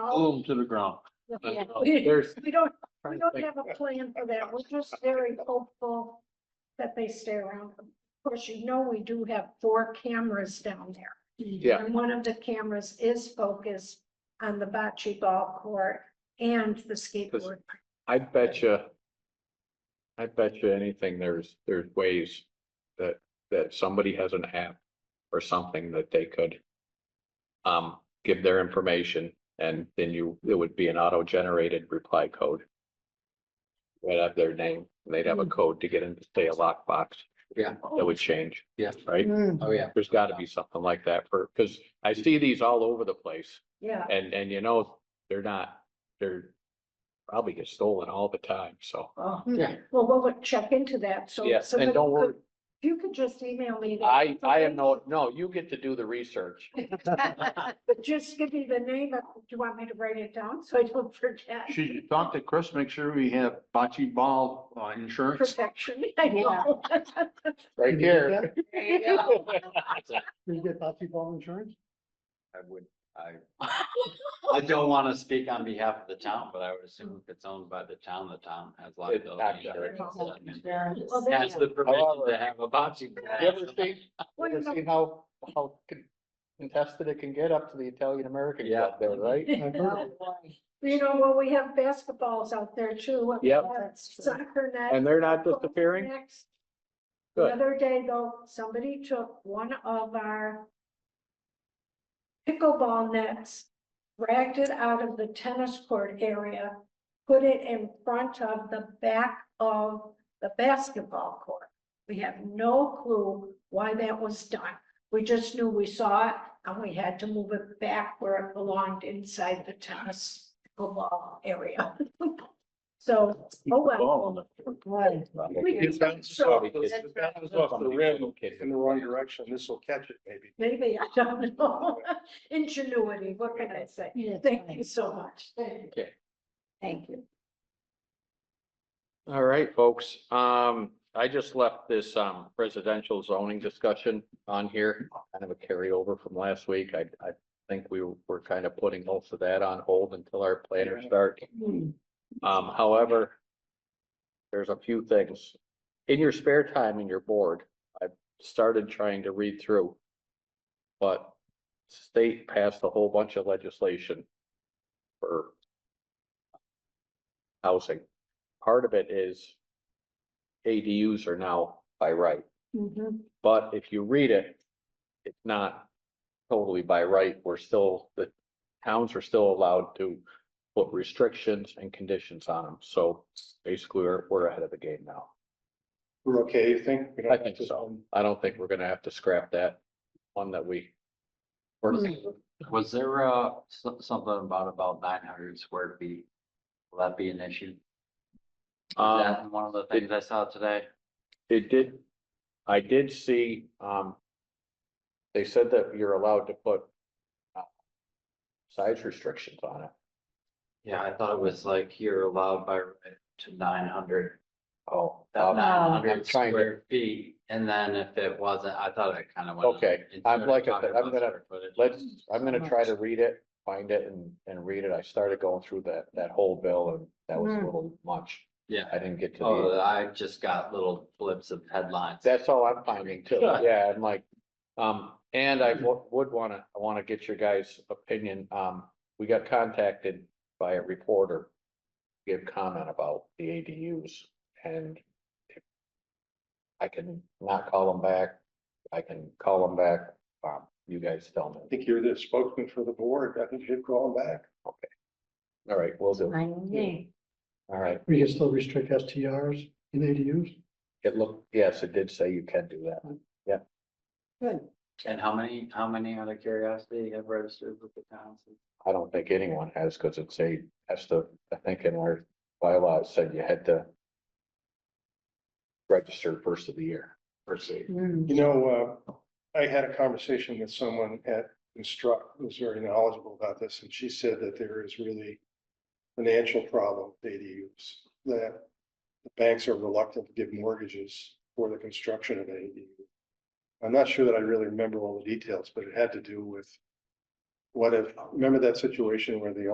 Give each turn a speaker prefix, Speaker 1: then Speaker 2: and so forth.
Speaker 1: glue them to the ground.
Speaker 2: Yeah.
Speaker 1: There's,
Speaker 2: We don't, we
Speaker 1: Trying to
Speaker 2: don't
Speaker 1: think.
Speaker 2: have a plan for that. We're just very hopeful that they stay around. Of course, you know, we do have four cameras down there.
Speaker 1: Yeah.
Speaker 2: And one of the cameras is focused on the bocce ball court and the skateboard.
Speaker 1: I bet you. I bet you anything, there's, there's ways that, that somebody has an app or something that they could. Um, give their information and then you, it would be an auto-generated reply code. Right up their name, and they'd have
Speaker 2: Hmm.
Speaker 1: a code to get into, say, a lockbox.
Speaker 3: Yeah.
Speaker 1: That
Speaker 2: Oh.
Speaker 1: would change.
Speaker 3: Yeah.
Speaker 1: Right?
Speaker 3: Oh, yeah.
Speaker 1: There's gotta be something like that for, because I see these all over the place.
Speaker 2: Yeah,
Speaker 1: And, and you know, they're not, they're probably get stolen all the time, so.
Speaker 2: well,
Speaker 3: Yeah.
Speaker 2: we'll look- check into that. So.
Speaker 1: Yes,
Speaker 2: so
Speaker 1: and
Speaker 2: that
Speaker 1: don't
Speaker 2: you could-
Speaker 1: worry,
Speaker 2: if You could just email me. that
Speaker 1: I, I am no, no, you get to do the research.
Speaker 2: information. But just give me the name. of- Do you want me to write it down so I don't forget?
Speaker 4: Should you talk to Chris, make sure we have bocce ball uh, insurance?
Speaker 2: Protection. I know.
Speaker 1: Right here.
Speaker 3: Did you get bocce ball insurance?
Speaker 5: I would, I, I don't want to speak on behalf of the town, but I would assume if it's owned by the town, the town has
Speaker 1: It's
Speaker 5: liability. insurance.
Speaker 2: not-
Speaker 5: and
Speaker 2: Well, there
Speaker 5: Has
Speaker 2: you go.
Speaker 5: the permission to have a bocce.
Speaker 1: You ever seen,
Speaker 2: Well, you
Speaker 1: you ever
Speaker 2: know,
Speaker 1: seen how, how con- contested it can get up to the Italian American club there, right?
Speaker 3: I've heard it.
Speaker 2: You know, well, we have basketballs out there too.
Speaker 1: Yep.
Speaker 2: Soccer net.
Speaker 1: And they're not disappearing?
Speaker 2: Next. The
Speaker 1: Good.
Speaker 2: other day though, somebody took one of our pickleball nets, dragged it out of the tennis court area, put it in front of the back of the basketball court. We have no clue why that was done. We just knew we saw it and we had to move it back where it belonged inside the tennis pickleball area. So, oh well. We can think so.
Speaker 1: Kids.
Speaker 6: the wrong direction, this will catch it maybe.
Speaker 2: Maybe, I don't know. Ingenuity, what can I say? Thank you so much.
Speaker 1: Okay.
Speaker 2: Thank you.
Speaker 1: All right, folks, um, I just left this, um, residential zoning discussion on here, kind of a carryover from last week. I, I think we were kind of putting most of that on hold until our planner starts.
Speaker 2: Hmm.
Speaker 1: Um, however, there's a few things. In your spare time in your board, I've started trying to read through. But state passed a whole bunch of legislation for housing part of it is ADUs are now by right,
Speaker 2: Mhm.
Speaker 1: but if you read it, it's not totally by right. We're still, the towns are still allowed to put restrictions and conditions on them. So basically, we're, we're ahead of the game now.
Speaker 6: We're okay, you think? We don't
Speaker 1: I
Speaker 6: have
Speaker 1: think
Speaker 6: to-
Speaker 1: so. I don't think we're gonna have to scrap that one that we, Hmm.
Speaker 5: Was there, uh, so- something about, about nine hundred square feet? Will that be an issue? Was
Speaker 1: um,
Speaker 5: that one of the things I saw today?
Speaker 1: It did, I did see, um. They said that you're allowed to put. uh, Size restrictions on it.
Speaker 5: Yeah, I thought it was like you're allowed by right to nine hundred.
Speaker 1: Oh.
Speaker 5: That nine
Speaker 1: I'm
Speaker 5: hundred
Speaker 1: trying to-
Speaker 5: square feet, and then if it wasn't, I thought it kind of went.
Speaker 1: Okay,
Speaker 5: into
Speaker 1: I'm like I
Speaker 5: talking
Speaker 1: said, I'm
Speaker 5: about
Speaker 1: gonna-
Speaker 5: square footage.
Speaker 1: Let's, I'm gonna try to read it, find it and, and read it. I started going through that, that whole bill and that was a little much.
Speaker 5: Yeah.
Speaker 1: I didn't get to
Speaker 5: Oh,
Speaker 1: the,
Speaker 5: I just got little blips of headlines.
Speaker 1: that's all I'm finding too.
Speaker 5: Sure.
Speaker 1: Yeah, I'm like, um, and I wo- would wanna, I wanna get your guys' opinion. Um, we got contacted by a reporter. to Give comment about the ADUs and if I can not call them back. I can call them back. Um, you guys tell
Speaker 6: I
Speaker 1: me.
Speaker 6: think you're the spokesman for the board. I think you should call them back.
Speaker 1: All right, we'll do. All right.
Speaker 3: We can still restrict STRs in ADUs.
Speaker 1: It looked, yes, it did say you can do that.
Speaker 5: And how many, how many out of curiosity have registered with the towns?
Speaker 1: I don't think anyone has, because it's a, has to, I think in our bylaw, it said you had to register first of the year. First of the year.
Speaker 2: Hmm.
Speaker 6: You know, uh, I had a conversation with someone at Instruct who's very knowledgeable about this, and she said that there is really financial problem with ADUs, that the banks are reluctant to give mortgages for the construction of an ADU. I'm not sure that I really remember all the details, but it had to do with what if, remember that situation where the